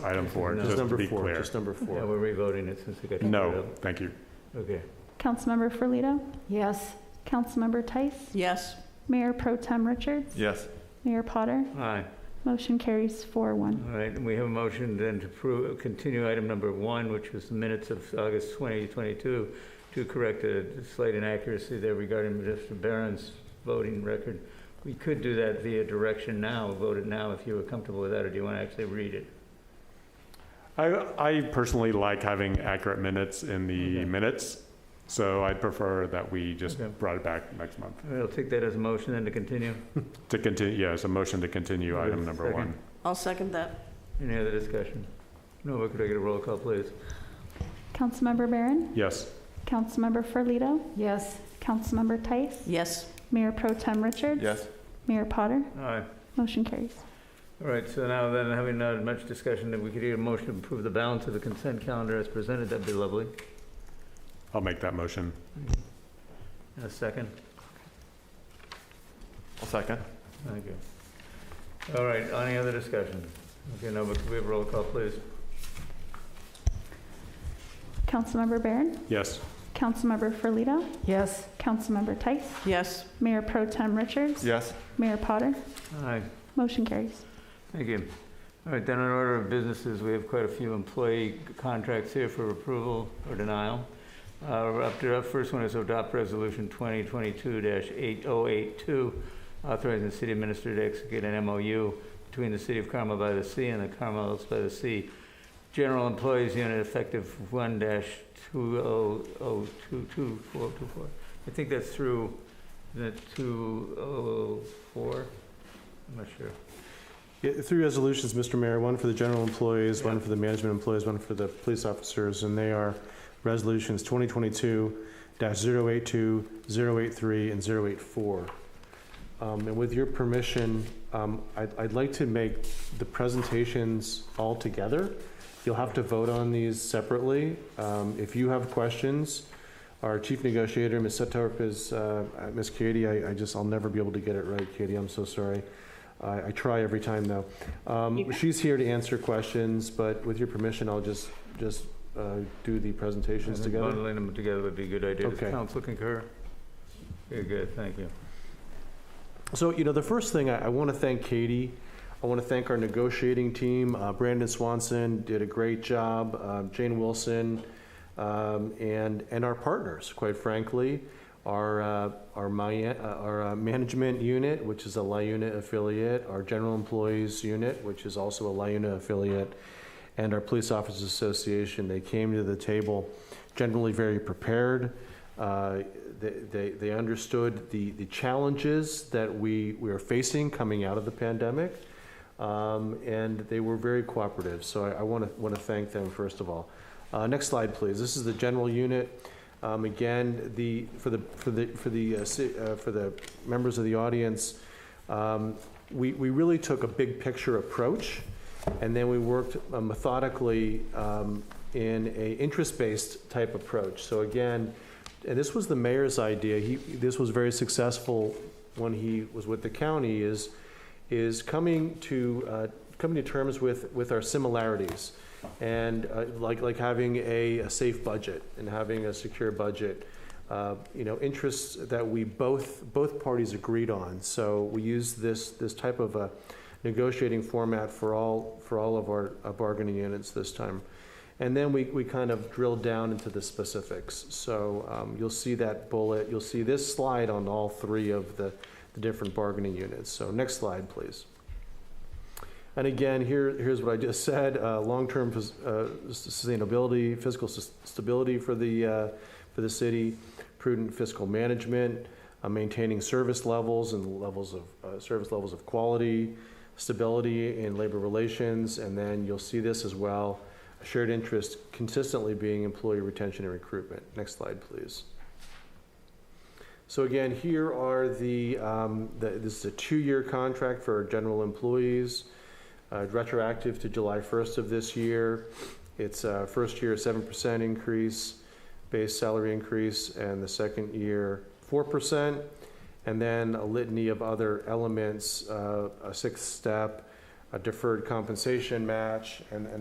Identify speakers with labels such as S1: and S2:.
S1: item four,
S2: No.
S1: just to
S2: number
S1: be
S2: four,
S1: clear.
S2: Just number
S3: Yeah,
S2: four.
S3: we're revoting it since we got.
S1: No, thank you.
S3: Okay.
S4: Councilmember Ferlito,
S5: Yes.
S4: Councilmember Tice,
S5: Yes.
S4: Mayor Pro Tem Richards,
S6: Yes.
S4: Mayor Potter.
S3: Aye.
S4: Motion carries four one.
S3: All right, and we have a motion then to approve, continue item number one, which was the minutes of August 2022, to correct a slight inaccuracy there regarding Mr. Barron's voting record. We could do that via direction now, vote it now if you were comfortable with that, or do you want to actually read it?
S1: I, I personally like having accurate minutes in the
S3: Okay.
S1: minutes, so I'd prefer that we just
S3: Okay.
S1: brought it back next month.
S3: All right, I'll take that as a motion then to continue.
S1: To continue, yes, a motion to continue
S3: Okay,
S1: item number
S3: second.
S1: one.
S5: I'll second that.
S3: Any other discussion? No, could I get a roll call, please?
S4: Councilmember Barron,
S1: Yes,
S4: Councilmember Ferlito,
S5: Yes.
S4: Councilmember Tice,
S5: Yes.
S4: Mayor Pro Tem Richards.
S6: Yes.
S4: Mayor Potter.
S3: Aye.
S4: Motion carries.
S3: All right, so now then, having not much discussion, if we could get a motion to approve the balance of the consent calendar as presented, that'd be lovely.
S1: I'll make that motion.
S3: And a second?
S6: I'll second.
S3: Thank you. All right, any other discussion? Okay, now, but could we have a roll call, please?
S4: Councilmember Barron,
S1: Yes,
S4: Councilmember Ferlito,
S5: Yes.
S4: Councilmember Tice,
S5: Yes.
S4: Mayor Pro Tem Richards.
S6: Yes.
S4: Mayor Potter.
S3: Aye,
S4: Motion carries.
S3: thank you. All right, then in order of businesses, we have quite a few employee contracts here for approval or denial. Uh, we're Up to, up first one is adopt resolution 2022-8082, authorizing the city minister to execute an MOU between the city of Carmel by the Sea and the Carmel by the Sea General Employees Unit effective 1-20022424. I think that's through the 204, I'm not sure.
S2: Yeah, Three resolutions, Mr. Mayor, one for the general employees, one
S3: Yeah.
S2: for the management employees, one for the police officers, and they are resolutions 2022-082, 083, and 084. Um, And with your permission, um, I'd I'd like to make the presentations all together. You'll have to vote on these separately. Um, If you have questions, our chief negotiator, Ms. Setorp, is, uh, uh, Ms. Katie, I I just, I'll never be able to get it right, Katie, I'm so sorry. I I try every time, though. Um, She's here to answer questions, but with your permission, I'll just, just uh, do the presentations
S3: I think
S2: together.
S3: Bundling them together would be a good idea. Does
S2: Okay.
S3: council concur? Very good, thank you.
S2: So, you know, the first thing, I, I want to thank Katie. I want to thank our negotiating team. Uh, Brandon Swanson did a great job, um, Jane Wilson, um, and, and our partners, quite frankly. Our, uh, our, my, uh, our uh, management unit, which is a La Unit affiliate, our general employees unit, which is also a La Unit affiliate, and our Police Officers Association. They came to the table generally very prepared. Uh, They, they- they understood the, the challenges that we, we are facing coming out of the pandemic, um, and they were very cooperative. So I want to, want to thank them, first of all. Uh, Next slide, please. This is the general unit. Um, Again, the, for the, for the, for the, uh, ci- uh, for the members of the audience, um, we, we really took a big picture approach, and then we worked uh, methodically um, in a interest-based type approach. So again, and this was the mayor's idea, he, this was very successful when he was with the county, is, is coming to, uh, coming to terms with, with our similarities. And uh, like, like having a, a safe budget and having a secure budget, uh, you know, interests that we both, both parties agreed on. So we used this, this type of a negotiating format for all, for all of our uh, bargaining units this time. And then we, we kind of drilled down into the specifics. So um, you'll see that bullet, you'll see this slide on all three of the, the different bargaining units. So next slide, please. And again, here, here's what I just said, uh, long-term pos- uh, sustainability, fiscal sus- stability for the, uh, for the city, prudent fiscal management, uh, maintaining service levels and levels of, uh, service levels of quality, stability in labor relations, and then you'll see this as well, shared interest consistently being employee retention and recruitment. Next slide, please. So again, here are the, um, the, this is a two-year contract for our general employees, uh, retroactive to July first of this year. It's, uh, first year, seven percent increase, base salary increase, and the second year, four percent. And then a litany of other elements, uh, a sixth step, a deferred compensation match, and, and